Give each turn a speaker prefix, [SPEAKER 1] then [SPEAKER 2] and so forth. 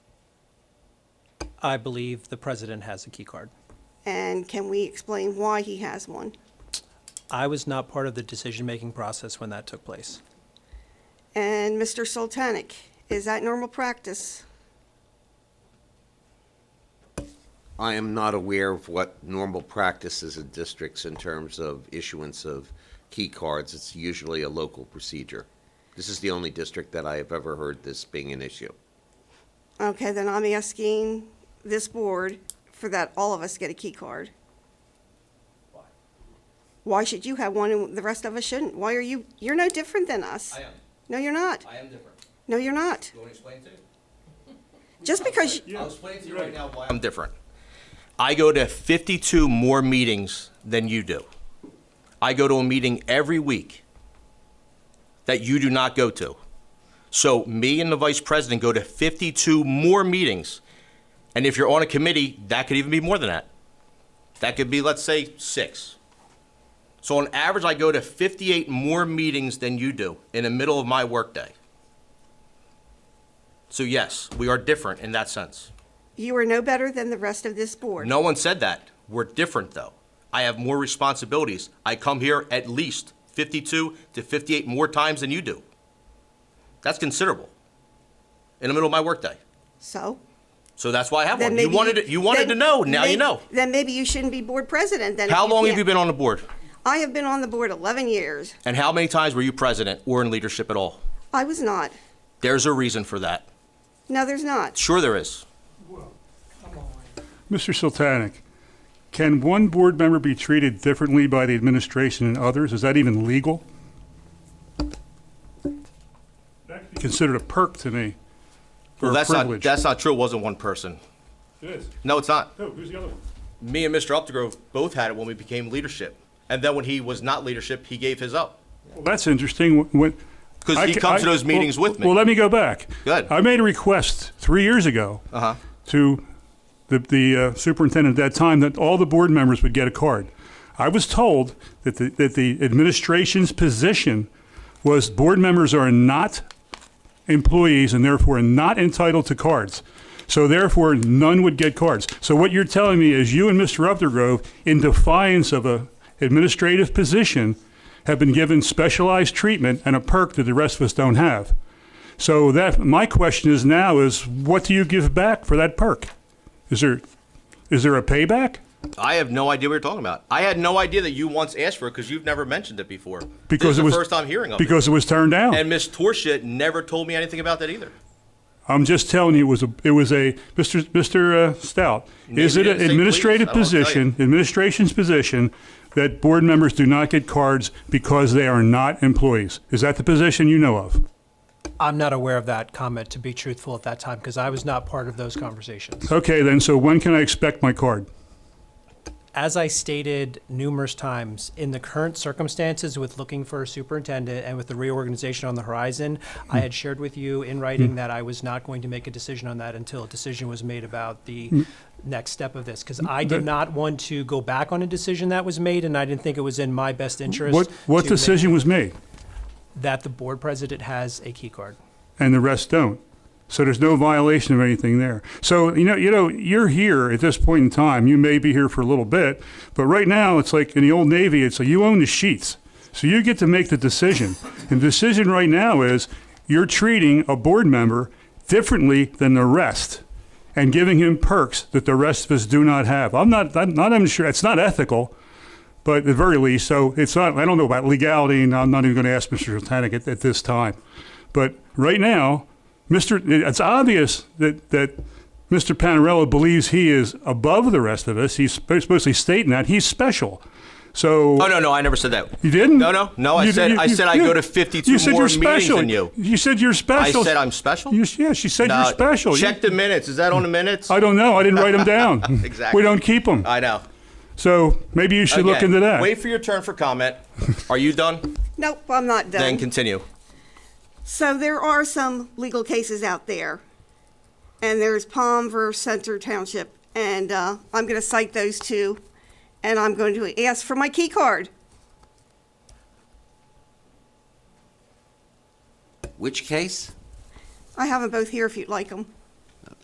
[SPEAKER 1] I believe the president has a key card.
[SPEAKER 2] And can we explain why he has one?
[SPEAKER 1] I was not part of the decision-making process when that took place.
[SPEAKER 2] And Mr. Soltanic, is that normal practice?
[SPEAKER 3] I am not aware of what normal practice is in districts in terms of issuance of key cards. It's usually a local procedure. This is the only district that I have ever heard this being an issue.
[SPEAKER 2] Okay, then I'm asking this board for that all of us get a key card. Why should you have one and the rest of us shouldn't? Why are you, you're no different than us.
[SPEAKER 4] I am.
[SPEAKER 2] No, you're not.
[SPEAKER 4] I am different.
[SPEAKER 2] No, you're not.
[SPEAKER 4] You want me to explain to you?
[SPEAKER 2] Just because,
[SPEAKER 4] I'll explain to you right now why I'm different. I go to 52 more meetings than you do. I go to a meeting every week that you do not go to. So me and the vice president go to 52 more meetings. And if you're on a committee, that could even be more than that. That could be, let's say, six. So on average, I go to 58 more meetings than you do in the middle of my workday. So yes, we are different in that sense.
[SPEAKER 2] you are no better than the rest of this board.
[SPEAKER 4] No one said that. We're different though. I have more responsibilities. I come here at least 52 to 58 more times than you do. That's considerable. In the middle of my workday.
[SPEAKER 2] So?
[SPEAKER 4] So that's why I have
[SPEAKER 2] then
[SPEAKER 4] one. You
[SPEAKER 2] maybe
[SPEAKER 4] wanted to, you wanted to
[SPEAKER 2] then
[SPEAKER 4] know. Now you
[SPEAKER 2] may-
[SPEAKER 4] know.
[SPEAKER 2] Then maybe you shouldn't be board president then. if
[SPEAKER 4] How long have
[SPEAKER 2] can't.
[SPEAKER 4] you been on the board?
[SPEAKER 2] I have been on the board 11 years.
[SPEAKER 4] And how many times were you president or in leadership at all?
[SPEAKER 2] I was not.
[SPEAKER 4] There's a reason for that.
[SPEAKER 2] No, there's not.
[SPEAKER 4] Sure there is.
[SPEAKER 5] Mr. Sultanic, can one board member be treated differently by the administration and others? Is that even legal? That'd be Considered a perk to me,
[SPEAKER 4] Well,
[SPEAKER 5] or a
[SPEAKER 4] that's not
[SPEAKER 5] privilege.
[SPEAKER 4] that's not true. It wasn't one person.
[SPEAKER 5] It is.
[SPEAKER 4] No, it's not.
[SPEAKER 5] Who, who's the other one?
[SPEAKER 4] me and Mr. Updegrove both had it when we became leadership. And then when he was not leadership, he gave his up.
[SPEAKER 5] Well, that's interesting. When-
[SPEAKER 4] 'Cause
[SPEAKER 5] I
[SPEAKER 4] he
[SPEAKER 5] ca-
[SPEAKER 4] comes
[SPEAKER 5] I-
[SPEAKER 4] to those meetings
[SPEAKER 5] well-
[SPEAKER 4] with me.
[SPEAKER 5] Well, let me go back.
[SPEAKER 4] Good.
[SPEAKER 5] I made a request three years ago
[SPEAKER 4] Uh-huh.
[SPEAKER 5] to the, the uh, superintendent at that time that all the board members would get a card. I was told that the, that the administration's position was board members are not employees and therefore not entitled to cards. So therefore, none would get cards. So what you're telling me is you and Mr. Updergrove, in defiance of a administrative position, have been given specialized treatment and a perk that the rest of us don't have. So that, my question is now is, what do you give back for that perk? Is there, is there a payback?
[SPEAKER 4] I have no idea what you're talking about. I had no idea that you once asked for it because you've never mentioned it before.
[SPEAKER 5] Because
[SPEAKER 4] this is
[SPEAKER 5] it
[SPEAKER 4] the
[SPEAKER 5] was
[SPEAKER 4] first time hearing of
[SPEAKER 5] Because it was turned down.
[SPEAKER 4] it. And Miss Torshit never told me anything about that either.
[SPEAKER 5] I'm just telling you, it was a, it was a, Mr. Mr. uh, Stout, is
[SPEAKER 4] Maybe
[SPEAKER 5] it
[SPEAKER 4] it's
[SPEAKER 5] an
[SPEAKER 4] St.
[SPEAKER 5] administrative
[SPEAKER 4] Cleve's, I don't tell you.
[SPEAKER 5] position, administration's position, that board members do not get cards because they are not employees? Is that the position you know of?
[SPEAKER 1] I'm not aware of that comment, to be truthful, at that time, because I was not part of those conversations.
[SPEAKER 5] Okay, then, so when can I expect my card?
[SPEAKER 1] As I stated numerous times, in the current circumstances with looking for a superintendent and with the reorganization on the horizon, I had shared with you in writing that I was not going to make a decision on that until a decision was made about the next step of this, because I did
[SPEAKER 5] That-
[SPEAKER 1] not want to go back on a decision that was made, and I didn't think it was in my best interest.
[SPEAKER 5] What,
[SPEAKER 1] to
[SPEAKER 5] what
[SPEAKER 1] make-
[SPEAKER 5] decision was made?
[SPEAKER 1] That the board president has a key card.
[SPEAKER 5] and the rest don't. So there's no violation of anything there. So you know, you know, you're here at this point in time. You may be here for a little bit, but right now it's like in the old navy. It's like you own the sheets, so you get to make the decision. And the decision right now is you're treating a board member differently than the rest, and giving him perks that the rest of us do not have. I'm not. I'm not even sure. It's not ethical but at the very least, so it's not, I don't know about legality, and I'm not even going to ask Mr. Sultanic at, at this time. But right now, Mr., it's obvious that, that Mr. Panarello believes he is above the rest of us. He's sp- supposedly stating that he's special. So
[SPEAKER 4] Oh no, no, I never said that.
[SPEAKER 5] you didn't?
[SPEAKER 4] No, no, no. I
[SPEAKER 5] You-
[SPEAKER 4] said
[SPEAKER 5] you-
[SPEAKER 4] I
[SPEAKER 5] you-
[SPEAKER 4] said I
[SPEAKER 5] you-
[SPEAKER 4] go to 52
[SPEAKER 5] you said
[SPEAKER 4] more
[SPEAKER 5] you're
[SPEAKER 4] meetings
[SPEAKER 5] special.
[SPEAKER 4] than you.
[SPEAKER 5] You said you're special.
[SPEAKER 4] said I'm special?
[SPEAKER 5] You, yeah, she said
[SPEAKER 4] No,
[SPEAKER 5] you're special. You-
[SPEAKER 4] Check the minutes. Is that on the minutes?
[SPEAKER 5] I don't know. I didn't write them down.
[SPEAKER 4] Exactly.
[SPEAKER 5] We don't keep them.
[SPEAKER 4] I know.
[SPEAKER 5] so maybe you should look
[SPEAKER 4] Again,
[SPEAKER 5] into that.
[SPEAKER 4] Wait for your turn for comment. Are you done?
[SPEAKER 2] Nope, I'm not
[SPEAKER 4] Then
[SPEAKER 2] done.
[SPEAKER 4] continue.
[SPEAKER 2] So there are some legal cases out there. And there's Palm versus Center Township. And uh, I'm going to cite those two. And I'm going to ask for my key card.
[SPEAKER 3] Which case?
[SPEAKER 2] I have them both here if you'd like them.